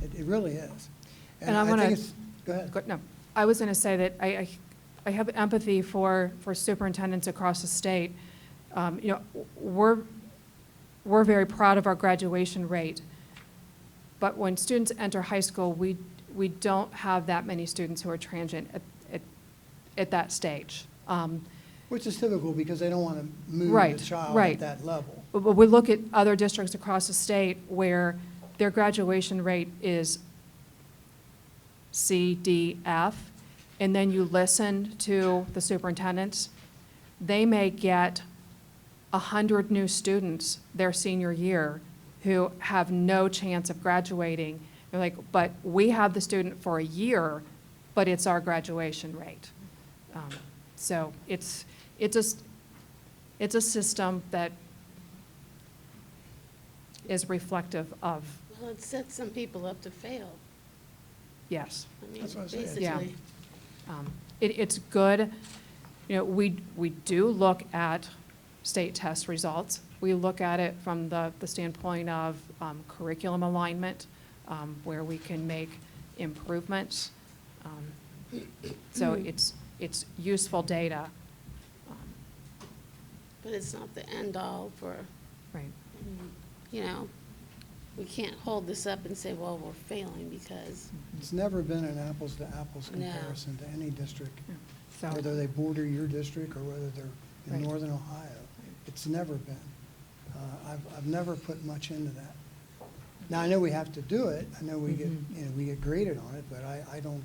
It really is. And I think wanna- it's- Go ahead. Good, no, I was going to say that I, I- I have empathy for, for superintendents across the state. Um, You know, w- we're, we're very proud of our graduation rate, but when students enter high school, we, we don't have that many students who are transient at, at, at that stage. Um, Which is typical because they don't want to move Right, the child right. at that level. But but we look at other districts across the state where their graduation rate is C, D, F, and then you listen to the superintendents, they may get 100 new students their senior year who have no chance of graduating. They're like, but we have the student for a year, but it's our graduation rate. Um, So it's, it's a, s- it's a system that is reflective of, Well, it sets some people up to fail. yes. I mean, That's what I said. Yeah. Basically, Um, It, it's good, you know, we, we do look at state test results. We look at it from the, the standpoint of um, curriculum alignment, um, where we can make improvements. Um, So it's, it's useful data. Um, but it's not the end-all for, Right. you know, we can't hold this up and say, well, we're failing because, It's never been an apples-to-apples No. comparison to any district, Yeah. whether So, they border your district or whether they're in Right. northern Ohio. It's never been. Uh, I've, I've never put much into that. Now, I know we have to do it, I know we get, Mhm. you know, we get graded on it, but I, I don't,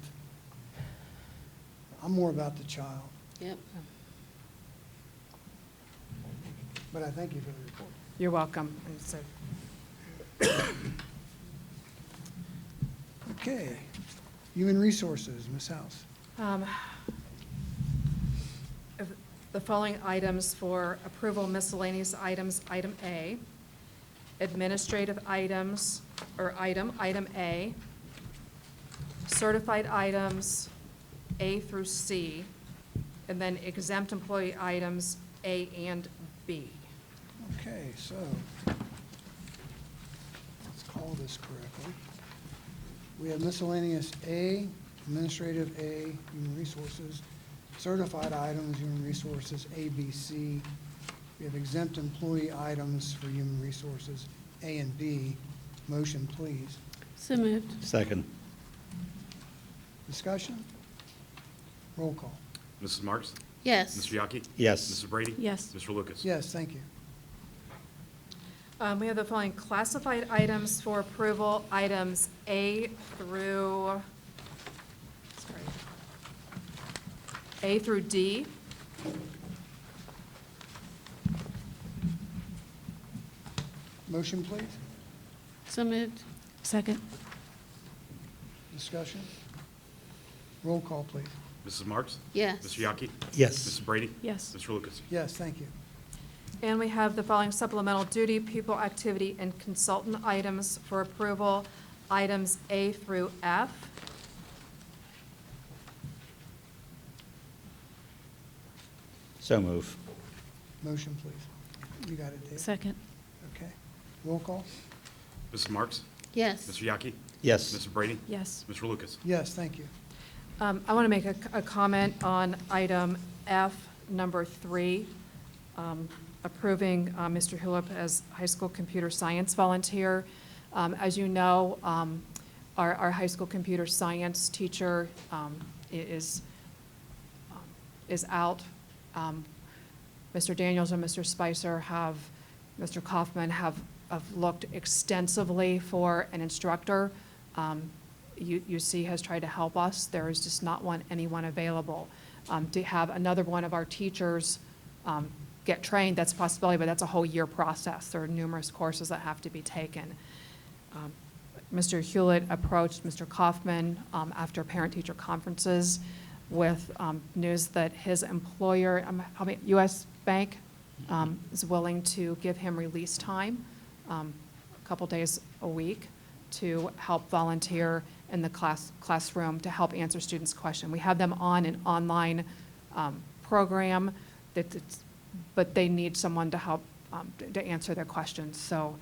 I'm more about the child, yep, but I thank you for the report. you're welcome. And so- Okay. Human Resources, Ms. House. Um, of The following items for approval miscellaneous items, item A. Administrative items, or item, item A. Certified items, A through C. And then exempt employee items, A and B. Okay, so, let's call this correctly. We have miscellaneous A, administrative A, human resources, certified items, human resources, A, B, C. We have exempt employee items for human resources, A and B. Motion, please. so moved. Second. Discussion? Roll call. Mrs. Marks? Yes, Mr. Yaki? Yes. Mrs. Brady? Yes. Mr. Lucas? Yes, thank you. Um, We have the following classified items for approval, items A through, sorry, A through D. Motion, please. so moved. Second. Discussion? Roll call, please. Mrs. Marks? Yes. Mr. Yaki? Yes. Mrs. Brady? Yes. Mr. Lucas? Yes, thank you. And we have the following supplemental duty, people, activity, and consultant items for approval, items A through F. So move. Motion, please. You got it, Dave? Second, Okay. Roll call? Mrs. Marks? Yes, Mr. Yaki? Yes. Mrs. Brady? yes, Mr. Lucas? Yes, thank you. Um, I want to make a, a comment on item F, number three, um, approving uh, Mr. Hulip as high school computer science volunteer. Um, As you know, um, our, our high school computer science teacher um, i- is, um, is out. Um, Mr. Daniels and Mr. Spicer have, Mr. Kaufman have, have looked extensively for an instructor. Um, U- UC has tried to help us. There is just not one, anyone available. Um, To have another one of our teachers um, get trained, that's a possibility, but that's a whole year process. There are numerous courses that have to be taken. Um, Mr. Hewlett approached Mr. Kaufman um, after parent-teacher conferences with um, news that his employer, um, I mean, U.S. Bank, um, is willing to give him release time, um, a couple days a week, to help volunteer in the class, classroom to help answer students' questions. We have them on an online um, program that, it's- but they need someone to help um, to- to answer their questions. So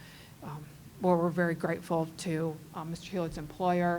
um, where we're very grateful to um, Mr. Hewlett's uh, employer